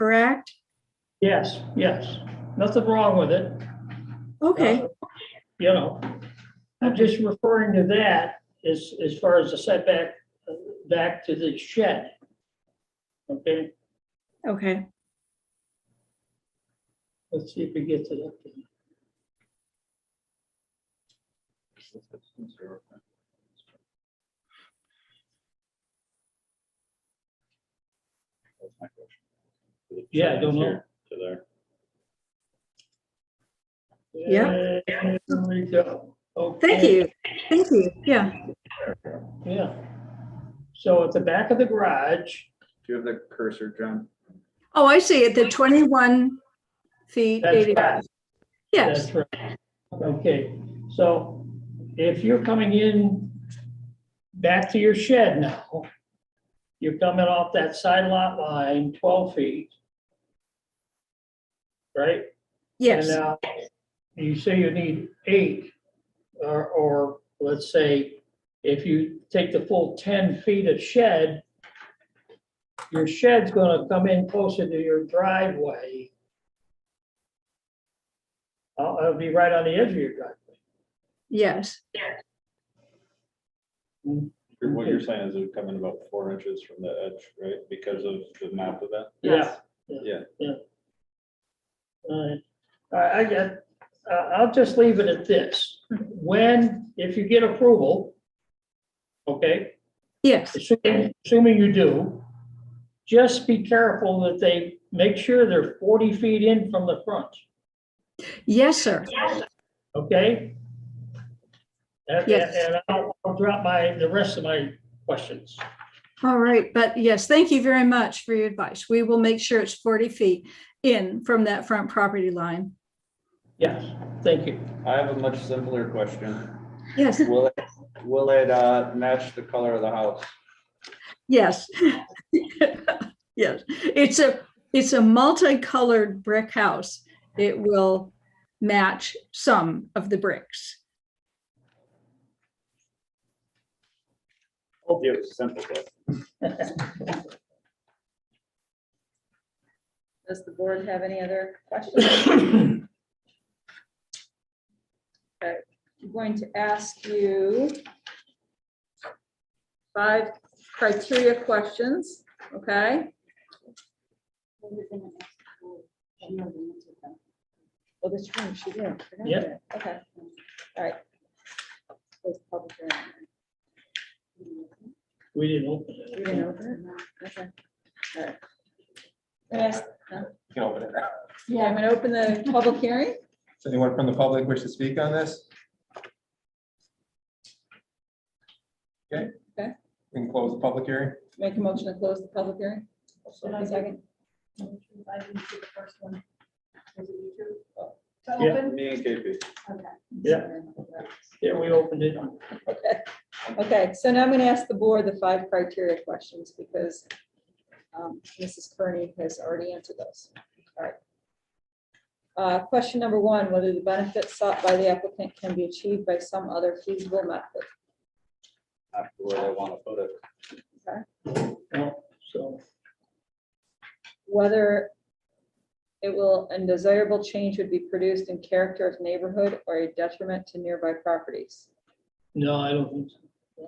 correct? Yes, yes. Nothing wrong with it. Okay, Uh, You know, I'm just referring to that as, as far as the setback, uh, back to the shed. Okay, okay. let's see if we get to that. Yeah, I don't know. Here To there. Yeah. There we go. Thank Okay. you, thank you, yeah. Yeah. So at the back of the garage, Do you have the cursor, John? Oh, I see it, the 21 feet. that's 80 right. Yes, That's right. Okay, so if you're coming in back to your shed now, you're coming off that side lot line, 12 feet. Right? yes, And, uh, You say you need eight, or, or let's say, if you take the full ten feet of shed, your shed's gonna come in closer to your driveway. I'll, I'll be right on the edge of your driveway. yes, You're- What you're saying is it would come in about four inches from the edge, right? Because of the map of that? Yeah. Yeah. Yeah. All right, I, I get, I- I'll just leave it at this. When, if you get approval, okay, yes, assuming assuming you do, just be careful that they make sure they're 40 feet in from the front, yes, sir. okay? And Yes. and I'll I'll drop my, the rest of my questions. All right, but yes, thank you very much for your advice. We will make sure it's 40 feet in from that front property line. Yes, thank you. I have a much simpler question. Yes, Will it, will it uh, match the color of the house? yes. Yes, it's a, it's a multicolored brick house. It will match some of the bricks. Yeah, it was a simple question. Does the board have any other questions? Okay, I'm going to ask you five criteria questions, okay? Well, that's right, she did. Yep. Okay, all right. Close public hearing. We didn't open You it. didn't open it? Okay, all right. Can I ask You can open it now. Yeah, I'm gonna open the public hearing. Does anyone from the public wish to speak on this? Okay. Okay. We can close the public hearing. Make a motion to close the public hearing. Should I Second. I didn't see the first one. Was it you two? To Yeah. open? Me and KP. Okay. Yeah. Yeah, we opened it. Okay, Okay. so now I'm gonna ask the board the five criteria questions because um, Mrs. Kearney has already answered those. All right. Uh, Question number one, whether the benefits sought by the applicant can be achieved by some other feasible method. After where they want to put it. No, So, whether it will, a desirable change would be produced in character of neighborhood or a detriment to nearby properties. no, I don't think so.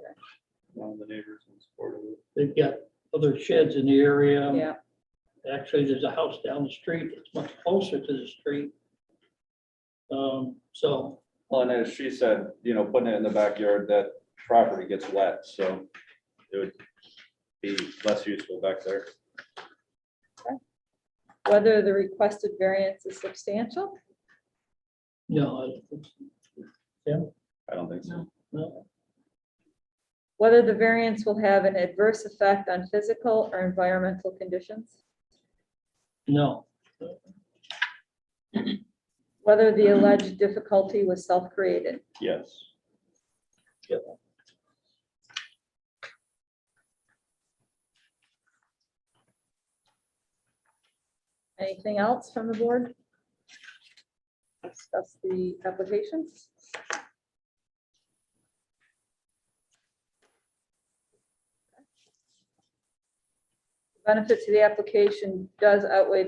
One of the neighbors in support of it. They've got other sheds in the area. Yeah, Actually, there's a house down the street that's much closer to the street. Um, So Well, and as she said, you know, putting it in the backyard, that property gets wet, so it would be less useful back there. whether the requested variance is substantial. No, I don't think so. I don't think so. no. Whether the variance will have an adverse effect on physical or environmental conditions. no, Whether the alleged difficulty was self-created. Yes. Anything else from the board? Discuss the applications. benefit to the application does outweigh the